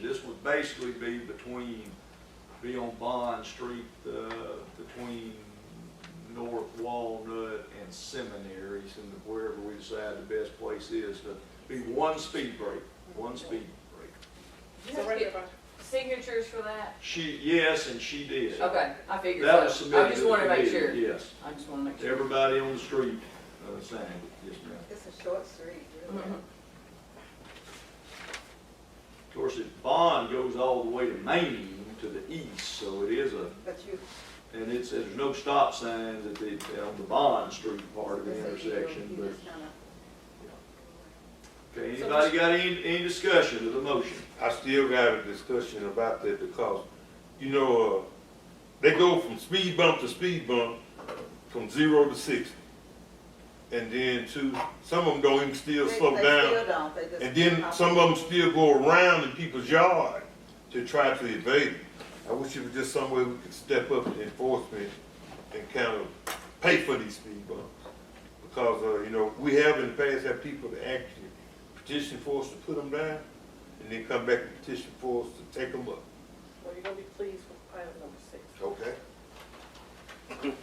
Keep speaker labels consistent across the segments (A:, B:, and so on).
A: this would basically be between, be on Bond Street, uh, between North Walnut and Seminary, and wherever we decide the best place is, to be one speed break, one speed break.
B: You have to get signatures for that?
A: She, yes, and she did.
B: Okay, I figured
A: That was
B: so.
A: submitted.
B: I just
A: to the
B: wanna make
A: committee,
B: sure.
A: Yes,
B: I just wanna make sure.
A: everybody on the street, uh, signed it, yes, ma'am.
C: It's a short street, really.
B: Mhm.
A: Of course, it bond goes all the way to Maine to the east, so it is a,
C: But you,
A: and it's, there's no stop signs at the, on the Bond Street part of the
C: it's a yield,
A: intersection,
C: you
A: but.
C: just kinda,
A: Okay, anybody got any, any discussion of the motion?
D: I still got a discussion about that because, you know, uh, they go from speed bump to speed bump, from zero to sixty. And then to, some of them don't even still
C: they-
D: slow
C: they
D: down.
C: still don't, they just
D: And then
C: hop
D: some
C: on.
D: of them still go around in people's yard to try to evade it. I wish it was just some way we could step up the enforcement and kind of pay for these speed bumps. Because, uh, you know, we have in the past had people that actually petition for us to put them down, and then come back and petition for us to take them up.
E: Well, you're gonna be pleased with item number six.
D: Okay.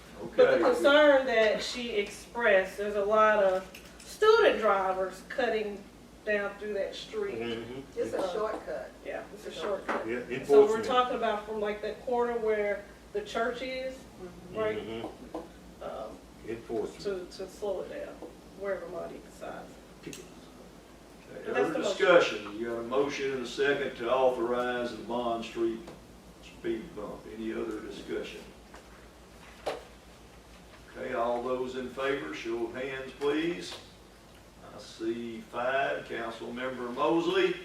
E: But the
A: Okay,
E: concern that she expressed, there's a lot of student drivers cutting down through
D: Mm-hmm.
E: that street.
C: Just a shortcut.
E: Yeah, it's a shortcut.
D: Yeah,
E: Mm-hmm. So we're
D: enforcement.
E: talking about from like that corner where the church is, right,
D: Mhm.
E: um,
D: Enforcement.
E: to, to slow it down, wherever Monty decides.
A: Okay, other discussion, you got a motion and a second to authorize the Bond Street speed bump, any other discussion? Okay, all those in favor, show of hands, please. I see five, Councilmember Mosley,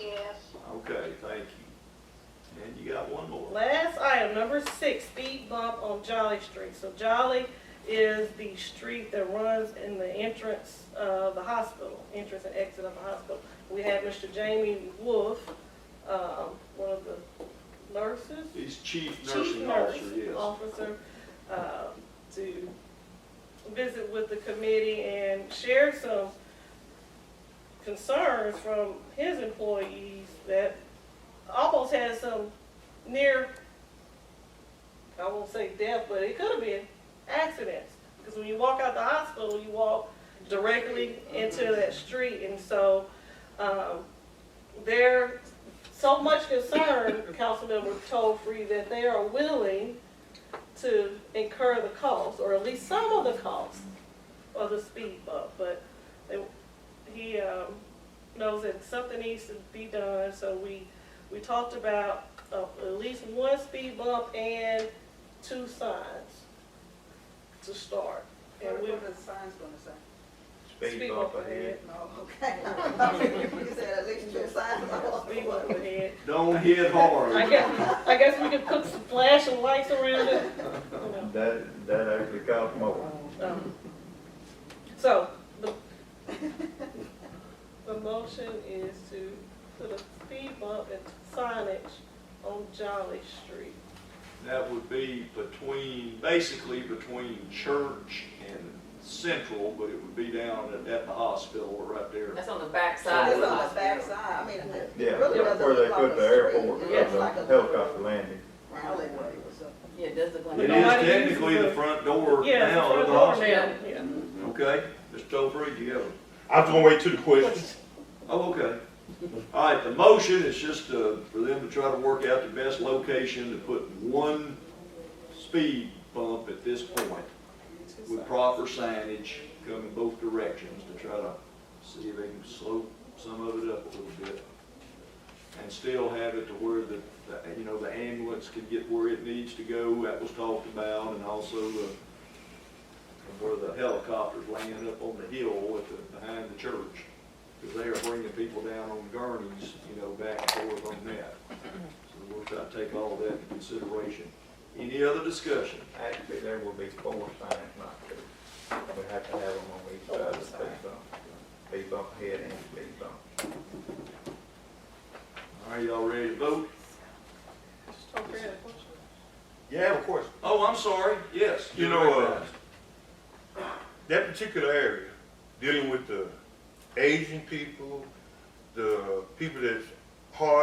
F: Yes,
A: okay, thank you. And you got one more.
E: Last item, number six, speed bump on Jolly Street. So Jolly is the street that runs in the entrance of the hospital, entrance and exit of the hospital. We had Mr. Jamie Wolf, um, one of the nurses,
A: He's chief
E: chief
A: nursing
E: nurse Oh.
A: officer, yes.
E: officer, uh, to visit with the committee and share some concerns from his employees that almost had some near, I won't say death, but it could have been accidents. Because when you walk out the hospital, you walk directly
A: Mm-hmm.
E: into that street. And so, um, they're so much concern, Councilmember Tolfree, that they are willing to incur the cost, or at least some of the cost of the speed bump, but they, he, um, knows that something needs to be done, so we, we talked about, uh, at least one speed bump and two signs to start. And
C: What
E: we,
C: what are the signs gonna say?
E: speed bump ahead,
C: No, okay. You said at least two signs.
E: speed bump ahead,
A: Don't hit hard.
E: I guess, I guess we could put some flashing lights around it. You know,
G: That, that actually costs more.
E: um, So, the, the motion is to put a speed bump and signage on Jolly Street.
A: That would be between, basically between church and central, but it would be down at, at the hospital right there.
B: That's on the back side of
C: It's
B: the
C: on the
B: hospital.
C: backside, I mean, it
G: Yeah,
C: really
G: that's
C: doesn't
G: where they
C: look like
G: put
C: a
G: the
C: street.
G: airport,
C: It
G: because
C: looks
G: the
C: like a
G: helicopter landing.
C: alleyway or something.
B: Yeah, it does look like.
A: It
B: a-
A: is technically the front door
E: Yeah,
A: now of
E: for the
A: the
E: door
A: hospital.
E: now, yeah.
A: Okay, Mr. Topher, you have, a-
D: I was gonna wait to the question.
A: oh, okay. All right, the motion is just, uh, for them to try to work out the best location to put one speed bump at this point with proper signage coming both directions to try to see if they can slope some of it up a little bit. And still have it to where the, the, you know, the ambulance can get where it needs to go, that was talked about, and also the, where the helicopters land up on the hill at the, behind the church. Because they are bringing people down on gurneys, you know, back and forth on that. So we'll try to take all that into consideration. Any other discussion?
G: Actually, there will be four signs, not two. We have to have them on each side of the speed bump. Speed bump ahead and speed bump.
A: Are y'all ready to vote?
E: Okay, any questions?
D: Yeah, of course.
A: Oh, I'm sorry, yes.
D: You
A: you're
D: know, uh,
A: recognized.
D: That particular area, dealing with the Asian people, the people that's hard